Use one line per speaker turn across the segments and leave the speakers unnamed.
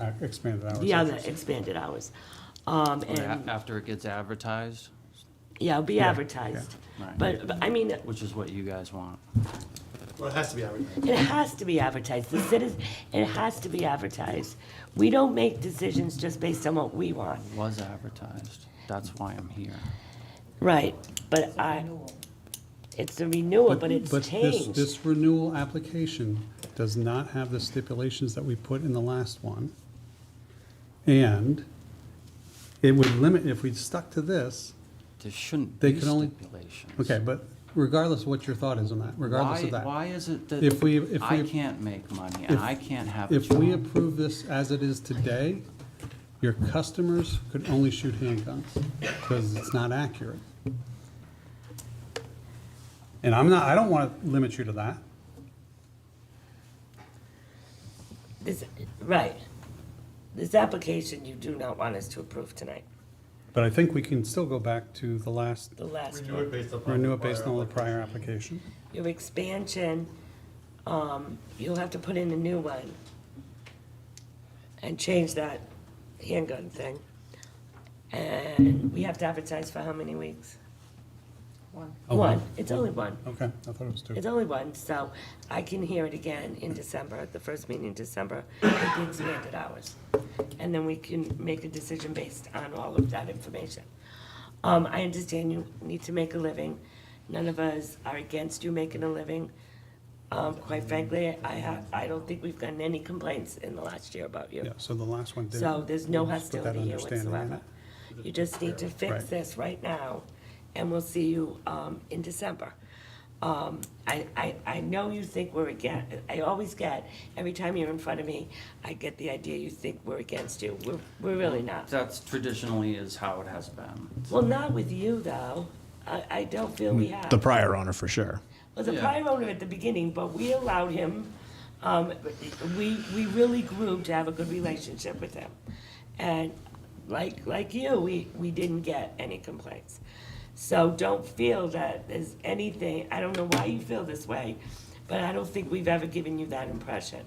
Uh, Expanded hours.
Yeah, the expanded hours. Um,
Oh,
and,
After it gets advertised,
yeah, it'll be advertised.
yeah. Right.
But, but, I mean,
which is what you guys want.
Well, it has to be advertised.
it has to be advertised. The citizen, it has to be advertised. We don't make decisions just based on what we want.
Was advertised. That's why I'm here.
Right, but I, it's a renewal, but it's
this-
changed.
This renewal application does not have the stipulations that we put in the last one. And it would limit, if we stuck to this,
There shouldn't
They
be
can only-
stipulations.
okay, but regardless of what your thought is on that, regardless
Why,
of that.
why is it
If we- if
that I
we-
can't make money and
if-
I can't have a
If we
job?
approve this as it is today, your customers could only shoot handguns because it's not accurate. And I'm not, I don't want to limit you to that.
This, right. This application you do not want us to approve tonight,
But I think we can still go back to the last,
the last
Renew it
one.
based upon.
renew it based on the prior application.
Your expansion, um, you'll have to put in a new one and change that handgun thing. And we have to advertise for how many weeks?
Oh,
One, it's only one.
Okay, I thought it was two.
It's only one, so I can hear it again in December, the first meeting in December, with the expanded hours. And then we can make a decision based on all of that information. Um, I understand you need to make a living. None of us are against you making a living. Um, quite frankly, I have, I don't think we've gotten any complaints in the last year about you.
Yeah, so the last one did.
So there's no
let's put that
hostility here
understanding in
whatsoever.
it.
You just need to fix
Right.
this right now, and we'll see you um, in December. Um, I, I, I know you think we're against, I always get, every time you're in front of me, I get the idea you think we're against you. We're, we're really not.
That's traditionally is how it has been.
Well, not with you, though. I, I don't feel we have.
The prior owner for sure.
was a
Yeah.
prior owner at the beginning, but we allowed him, um, we, we really grew to have a good relationship with him. And like, like you, we, we didn't get any complaints. So don't feel that there's anything, I don't know why you feel this way, but I don't think we've ever given you that impression.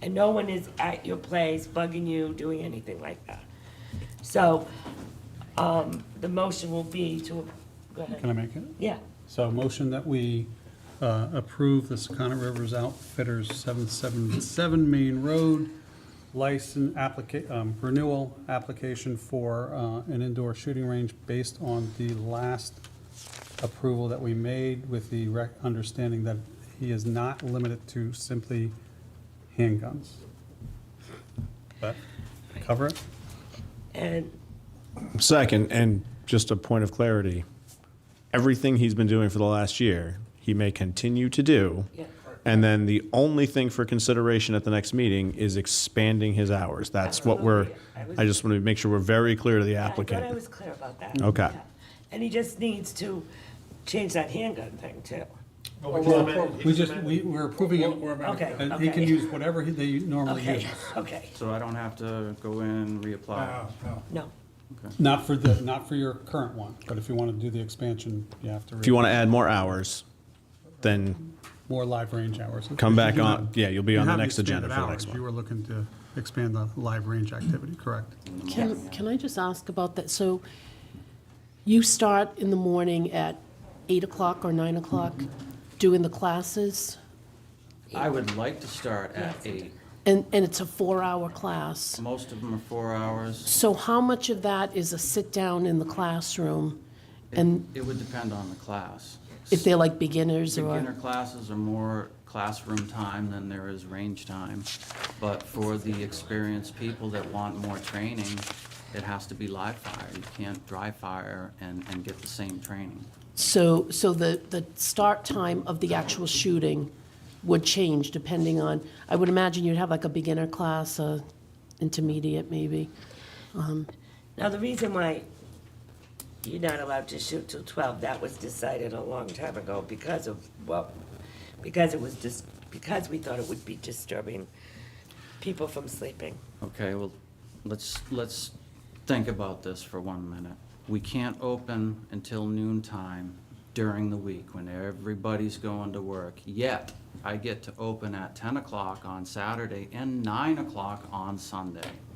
And no one is at your place bugging you, doing anything like that. So, um, the motion will be to, go
Can
ahead.
I make it?
Yeah,
So motion that we uh, approve the Secana Rivers Outfitters 777 Main Road license applica, um, renewal application for uh, an indoor shooting range based on the last approval that we made with the rec, understanding that he is not limited to simply handguns. That cover it?
and
Second, and just a point of clarity, everything he's been doing for the last year, he may continue to do.
Yeah.
And then the only thing for consideration at the next meeting is expanding his hours. That's what we're,
Absolutely. I
I just want to make sure we're very clear to the
Yeah, I thought I
applicant.
was clear about that.
Okay.
Yeah. And he just needs to change that handgun thing too.
Well, we just amended- he
We just,
amended-
we, we're approving it.
Okay,
and He
okay.
can use whatever he- they normally use.
Okay, okay,
So I don't have to go in, reapply.
no.
Not for the, not for your current one, but if you want to do the expansion, you have to.
If you want to add more hours, then
More live range hours.
Come back
You
on-
have-
yeah, you'll be
you
on the
have
next agenda
expanded
for the next
hours.
one.
You were looking to expand the live range activity, correct?
Can, can I just ask about that? So you start in the morning at 8 o'clock or 9 o'clock doing the classes?
I would like to start at eight.
And, and it's a four-hour class?
Most of them are four hours.
So how much of that is a sit-down in the classroom? And
It would depend on the class.
if they're like beginners
Beginner
or?
classes are more classroom time than there is range time. But for the experienced people that want more training, it has to be live fire. You can't dry fire and, and get the same training.
So, so the, the start time of the actual shooting would change depending on, I would imagine you'd have like a beginner class, a intermediate maybe?
Now, the reason why you're not allowed to shoot till twelve, that was decided a long time ago because of, well, because it was just, because we thought it would be disturbing people from sleeping.
Okay, well, let's, let's think about this for one minute. We can't open until noon time during the week when everybody's going to work. Yet, I get to open at ten o'clock on Saturday and nine o'clock on Sunday.